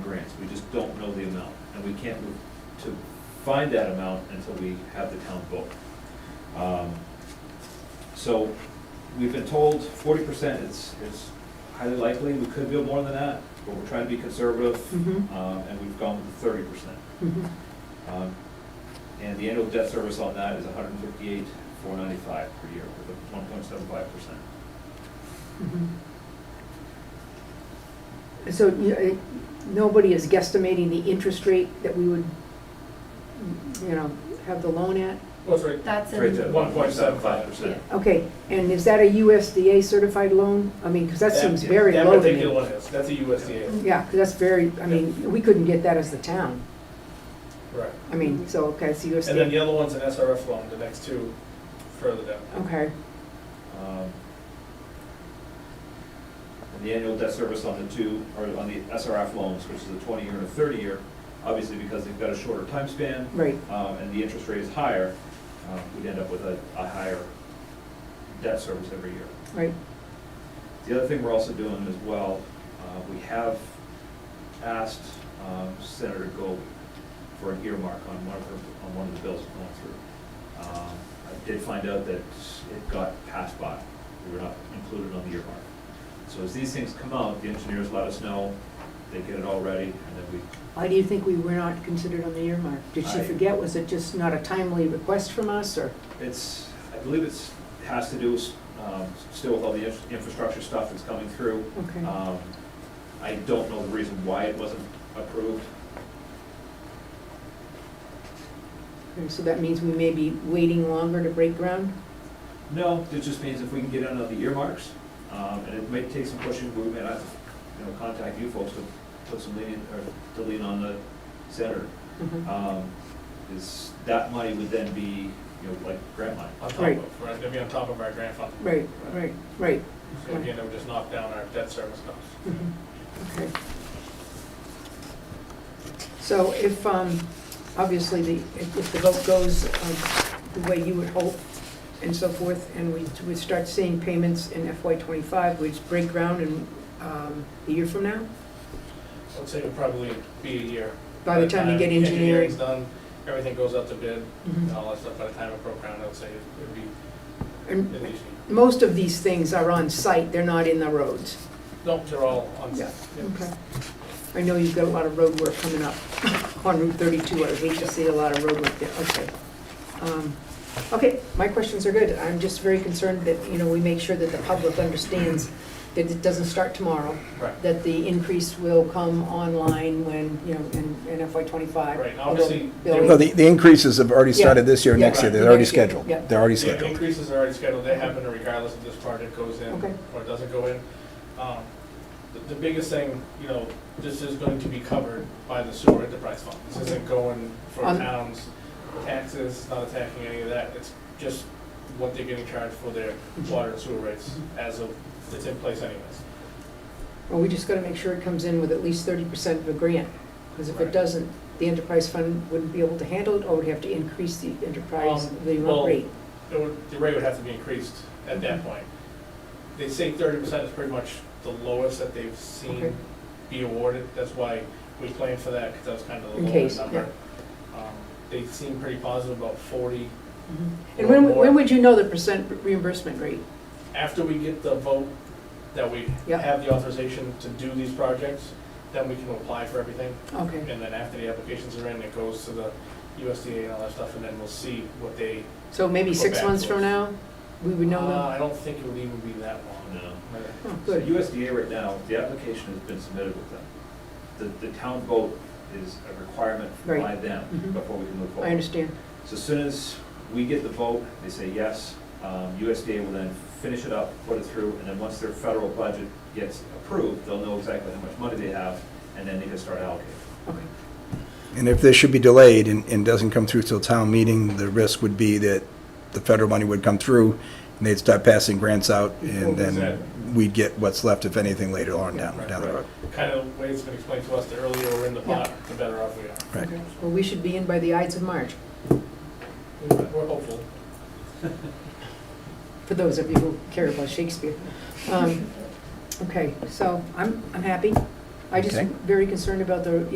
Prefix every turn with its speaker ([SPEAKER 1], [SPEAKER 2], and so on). [SPEAKER 1] variance, we just don't know the amount, and we can't move to find that amount until we have the town vote. Um, So, we've been told forty percent is, is highly likely, we could do more than that, but we're trying to be conservative,
[SPEAKER 2] Mhm.
[SPEAKER 1] uh, and we've gone with thirty percent.
[SPEAKER 2] Mhm.
[SPEAKER 1] Um, And the annual debt service on that is 158, 495 per year with a 1.75%.
[SPEAKER 2] Mhm. So, you know, it- nobody is guesstimating the interest rate that we would, you know, have the loan at?
[SPEAKER 3] That's right.
[SPEAKER 4] That's
[SPEAKER 1] Trades at
[SPEAKER 4] in,
[SPEAKER 1] 1.75%.
[SPEAKER 2] Okay, and is that a USDA certified loan? I mean, because that seems very
[SPEAKER 3] That
[SPEAKER 2] low to
[SPEAKER 3] particular
[SPEAKER 2] me.
[SPEAKER 3] one is, that's a USDA.
[SPEAKER 2] Yeah, 'cause that's very, I mean, we couldn't get that as the town.
[SPEAKER 3] Right.
[SPEAKER 2] I mean, so, okay, it's
[SPEAKER 3] And then the
[SPEAKER 2] USDA.
[SPEAKER 3] other one's an SRF loan, the next two further down.
[SPEAKER 2] Okay,
[SPEAKER 1] Um, And the annual debt service on the two, or on the SRF loans, which is a 20-year and a 30-year, obviously because they've got a shorter time span
[SPEAKER 2] right,
[SPEAKER 1] um, and the interest rate is higher, uh, we'd end up with a a higher debt service every year.
[SPEAKER 2] right.
[SPEAKER 1] The other thing we're also doing as well, uh, we have asked um, Senator Gold for an earmark on one of her, on one of the bills going through. Um, I did find out that it got passed by, we were not included on the earmark. So as these things come out, the engineers let us know, they get it all ready, and then we,
[SPEAKER 2] Why do you think we were not considered on the earmark? Did she
[SPEAKER 1] I-
[SPEAKER 2] forget? Was it just not a timely request from us, or?
[SPEAKER 1] It's, I believe it's, has to do with, um, still with all the infra- infrastructure stuff that's coming through.
[SPEAKER 2] Okay.
[SPEAKER 3] Uh,
[SPEAKER 1] Um, I don't know the reason why it wasn't approved.
[SPEAKER 2] Okay, So that means we may be waiting longer to break ground?
[SPEAKER 1] No, it just means if we can get on the earmarks, um, and it may take some pushing, we may have to, you know, contact you folks to put some lean, or to lean on the senator.
[SPEAKER 2] Mhm.
[SPEAKER 1] Um, is, that money would then be, you know, like grant money.
[SPEAKER 3] On top
[SPEAKER 2] Right.
[SPEAKER 3] of, right, it'd be on top of our grant fund.
[SPEAKER 2] Right, right, right.
[SPEAKER 3] So again, it would just knock down our debt service costs.
[SPEAKER 2] Mhm. Okay. So if, um, obviously, the, if if the vote goes um, the way you would hope and so forth, and we, we start seeing payments in FY twenty-five, we just break ground in, um, a year from now?
[SPEAKER 3] I'd say it would probably be a year.
[SPEAKER 2] By the time you get
[SPEAKER 3] Uh, Engineering's
[SPEAKER 2] engineering?
[SPEAKER 3] done, everything goes out to bid, and
[SPEAKER 2] Mhm.
[SPEAKER 3] all that stuff, by the time it broke ground, I'd say it would be
[SPEAKER 2] And
[SPEAKER 3] at least. a year.
[SPEAKER 2] most of these things are on site, they're not in the roads.
[SPEAKER 3] Nope, they're all on.
[SPEAKER 2] Yeah.
[SPEAKER 3] yeah.
[SPEAKER 2] Okay. I know you've got a lot of road work coming up on Route 32. I hate to see a lot of road work there, okay. Um, Okay, my questions are good. I'm just very concerned that, you know, we make sure that the public understands that it doesn't start tomorrow,
[SPEAKER 3] Right.
[SPEAKER 2] that the increase will come online when, you know, in in FY '25.
[SPEAKER 3] Right, and obviously,
[SPEAKER 2] Although
[SPEAKER 3] there
[SPEAKER 2] Bill-
[SPEAKER 5] No, the, the increases have already
[SPEAKER 2] Yeah.
[SPEAKER 5] started this year,
[SPEAKER 2] Yeah.
[SPEAKER 5] next year, they're
[SPEAKER 2] Right.
[SPEAKER 5] already
[SPEAKER 2] Next year.
[SPEAKER 5] scheduled.
[SPEAKER 2] Yeah.
[SPEAKER 5] They're already
[SPEAKER 3] Yeah, the
[SPEAKER 5] scheduled.
[SPEAKER 3] increases are already scheduled, they happen regardless if this project goes in
[SPEAKER 2] Okay.
[SPEAKER 3] or doesn't go in. Um, The, the biggest thing, you know, this is going to be covered by the sewer enterprise fund. This isn't going for
[SPEAKER 2] On-
[SPEAKER 3] towns, taxes, not attacking any of that, it's just what they're getting charged for their water and sewer rates as of, it's in place anyways.
[SPEAKER 2] Well, we just got to make sure it comes in with at least 30% of a grant, because if it
[SPEAKER 3] Right.
[SPEAKER 2] doesn't, the enterprise fund wouldn't be able to handle it, or would have to increase the enterprise,
[SPEAKER 3] Um,
[SPEAKER 2] the
[SPEAKER 3] well,
[SPEAKER 2] rate.
[SPEAKER 3] It would, the rate would have to be increased at
[SPEAKER 2] Mm-hmm.
[SPEAKER 3] that point. They say thirty percent is pretty much the lowest that they've
[SPEAKER 2] Okay.
[SPEAKER 3] seen be awarded, that's why we planned for that, because that was kind of the
[SPEAKER 2] In
[SPEAKER 3] lower
[SPEAKER 2] case,
[SPEAKER 3] number. Um, They seem pretty positive about forty.
[SPEAKER 2] Mm-hmm. And when,
[SPEAKER 3] Or
[SPEAKER 2] when
[SPEAKER 3] more.
[SPEAKER 2] would you know the percent reimbursement rate?
[SPEAKER 3] After we get the vote that we
[SPEAKER 2] Yeah.
[SPEAKER 3] have the authorization to do these projects, then we can apply for everything.
[SPEAKER 2] Okay,
[SPEAKER 3] And then after the applications are in, it goes to the USDA and all that stuff, and then we'll see what they.
[SPEAKER 2] so maybe
[SPEAKER 3] Go
[SPEAKER 2] six
[SPEAKER 3] back
[SPEAKER 2] months
[SPEAKER 3] to
[SPEAKER 2] from
[SPEAKER 3] us.
[SPEAKER 2] now, we would know
[SPEAKER 3] Uh,
[SPEAKER 2] that?
[SPEAKER 3] I don't think it would even be that long.
[SPEAKER 1] No.
[SPEAKER 3] Right.
[SPEAKER 2] Oh,
[SPEAKER 1] So
[SPEAKER 2] good,
[SPEAKER 1] USDA right now, the application has been submitted with them. The, the town vote is a requirement by
[SPEAKER 2] Right.
[SPEAKER 1] them
[SPEAKER 2] Mhm.
[SPEAKER 1] before we can move forward.
[SPEAKER 2] I understand.
[SPEAKER 1] So as soon as we get the vote, they say yes, um, USDA will then finish it up, put it through, and then once their federal budget gets approved, they'll know exactly how much money they have, and then they can start allocating.
[SPEAKER 2] Okay,
[SPEAKER 5] And if this should be delayed and, and doesn't come through till town meeting, the risk would be that the federal money would come through and they'd start passing grants out and
[SPEAKER 3] Exactly.
[SPEAKER 5] then we'd get what's left, if anything, later on down, down the road.
[SPEAKER 3] kind of way it's been explained to us, the earlier we're in the pot, the better off we are.
[SPEAKER 5] Right.
[SPEAKER 2] okay. Well, we should be in by the Ides of March,
[SPEAKER 3] We're hopeful.
[SPEAKER 2] for those of you who care about Shakespeare. Um, Okay, so I'm, I'm happy. I just
[SPEAKER 5] Okay.
[SPEAKER 2] very concerned about the